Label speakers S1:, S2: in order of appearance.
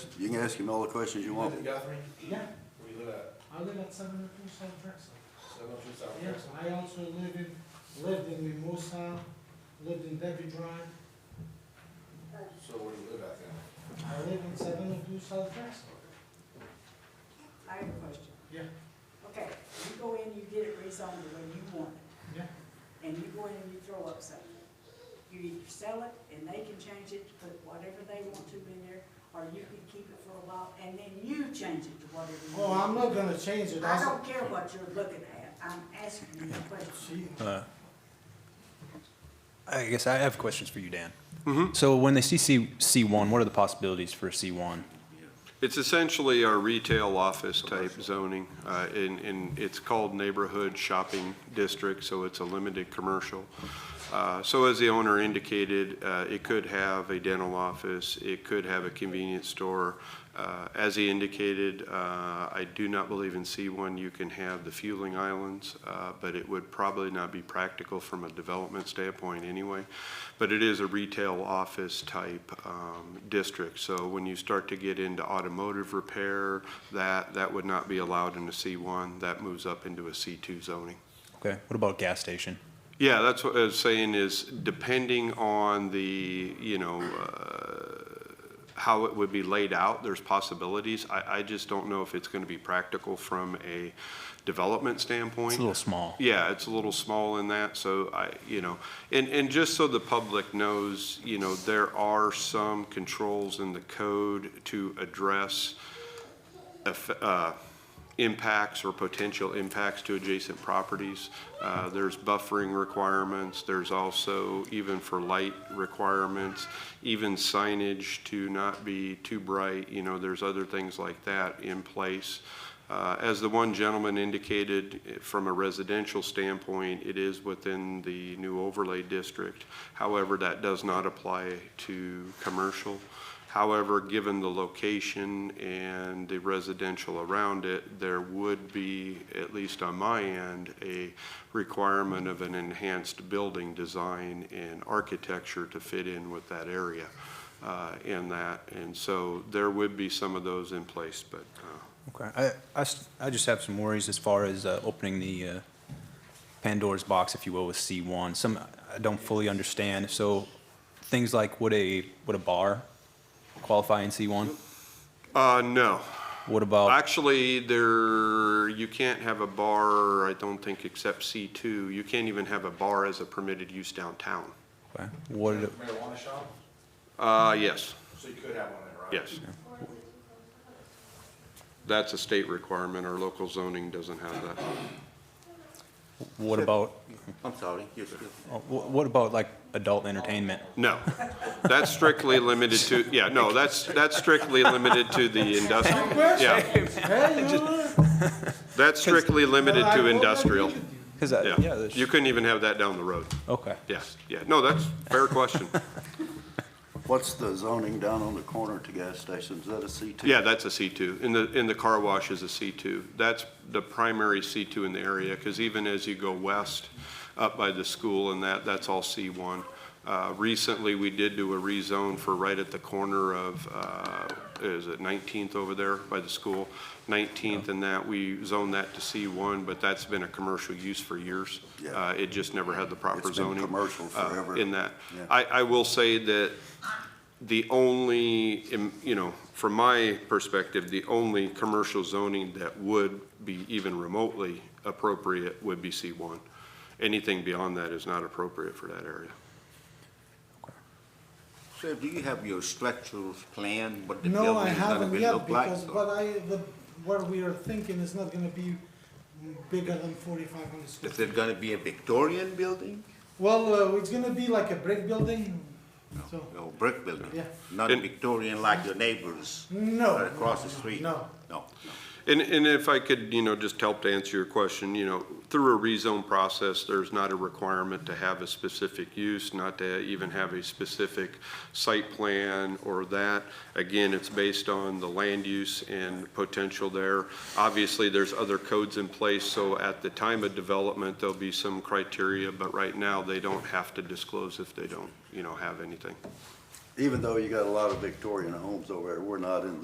S1: You can ask him all the questions you want.
S2: Live in Guthrie?
S3: Yeah,
S2: Where you live at?
S3: I live at seven oh two South Drexel.
S2: Seven oh two South
S3: Yes,
S2: Drexel?
S3: I also live in, lived in Mimosa, lived in Debbie Drive.
S2: So where do you live at then?
S3: I live in seven oh two South Drexel.
S4: I have a question.
S3: Yeah.
S4: Okay, you go in, you get it rezoned the way you want
S3: Yeah.
S4: it, and you go in and you throw up something. You either sell it and they can change it, put whatever they want to in there, or you can keep it for a while and then you change it to whatever you
S3: Oh, I'm not
S4: want.
S3: gonna change it,
S4: I
S3: that's,
S4: don't care what you're looking at, I'm asking you a question.
S3: she,
S5: Uh, I guess I have questions for you, Dan. So when they see C, C1, what are the possibilities for C1?
S6: It's essentially our retail office type zoning, uh, and, and it's called neighborhood shopping district, so it's a limited commercial. Uh, So as the owner indicated, uh, it could have a dental office, it could have a convenience store. Uh, As he indicated, uh, I do not believe in C1 you can have the fueling islands, uh, but it would probably not be practical from a development standpoint anyway. But it is a retail office type um, district, so when you start to get into automotive repair, that, that would not be allowed in a C1, that moves up into a C2 zoning.
S5: Okay, what about gas station?
S6: Yeah, that's what I was saying is depending on the, you know, uh, how it would be laid out, there's possibilities. I, I just don't know if it's going to be practical from a development standpoint.
S5: It's a little small.
S6: Yeah, it's a little small in that, so I, you know, and, and just so the public knows, you know, there are some controls in the code to address eff- uh, impacts or potential impacts to adjacent properties. Uh, There's buffering requirements, there's also even for light requirements, even signage to not be too bright, you know, there's other things like that in place. Uh, As the one gentleman indicated, eh, from a residential standpoint, it is within the new overlay district. However, that does not apply to commercial. However, given the location and the residential around it, there would be, at least on my end, a requirement of an enhanced building design and architecture to fit in with that area uh, in that. And so there would be some of those in place, but uh,
S5: Okay, I, I s- I just have some worries as far as uh, opening the uh, Pandora's box, if you will, with C1. Some I don't fully understand, so things like would a, would a bar qualify in C1?
S6: Uh, no.
S5: What about,
S6: Actually, there, you can't have a bar, I don't think, except C2. You can't even have a bar as a permitted use downtown.
S5: okay, what,
S2: Marijuana shop?
S6: Uh, yes,
S2: So you could have one there, right?
S6: yes. That's a state requirement. Our local zoning doesn't have that.
S5: what about,
S1: I'm sorry, yes, yes.
S5: uh, wh- what about like adult entertainment?
S6: No. That's strictly limited to, yeah, no, that's, that's strictly limited to the industrial. Yeah,
S3: hey, you know.
S6: that's strictly limited
S3: I
S6: to
S3: totally
S6: industrial.
S3: agree with you.
S5: 'Cause I- yeah,
S6: Yeah,
S5: there's-
S6: you couldn't even have that down the road.
S5: okay.
S6: Yes, yeah. No, that's a fair question.
S1: What's the zoning down on the corner to gas stations? Is that a C2?
S6: Yeah, that's a C2. And the, and the car wash is a C2. That's the primary C2 in the area, because even as you go west up by the school and that, that's all C1. Uh, Recently, we did do a rezone for right at the corner of, uh, is it 19th over there by the school? 19th and that, we zoned that to C1, but that's been a commercial use for years.
S1: Yeah.
S6: Uh, It just never had the proper
S1: been
S6: zoning.
S1: commercial
S6: uh,
S1: forever.
S6: In that.
S1: Yeah.
S6: I, I will say that the only, im- you know, from my perspective, the only commercial zoning that would be even remotely appropriate would be C1. Anything beyond that is not appropriate for that area.
S7: Sir, do you have your structures planned, what the
S3: No, I
S7: building is gonna
S3: haven't
S7: be
S3: yet,
S7: look like?
S3: because
S7: so-
S3: what I, the, what we are thinking is not gonna be bigger than forty-five hundred square.
S7: Is it gonna be a Victorian building?
S3: Well, uh, it's gonna be like a brick building, so,
S7: Or brick building?
S3: Yeah.
S7: Not a
S6: And-
S7: Victorian like your neighbors?
S3: No,
S7: right Across the
S3: no, no,
S7: street?
S3: no.
S7: No.
S6: And, and if I could, you know, just help to answer your question, you know, through a rezone process, there's not a requirement to have a specific use, not to even have a specific site plan or that. Again, it's based on the land use and potential there. Obviously, there's other codes in place, so at the time of development, there'll be some criteria, but right now, they don't have to disclose if they don't, you know, have anything.
S1: Even though you got a lot of Victorian homes over there, we're not in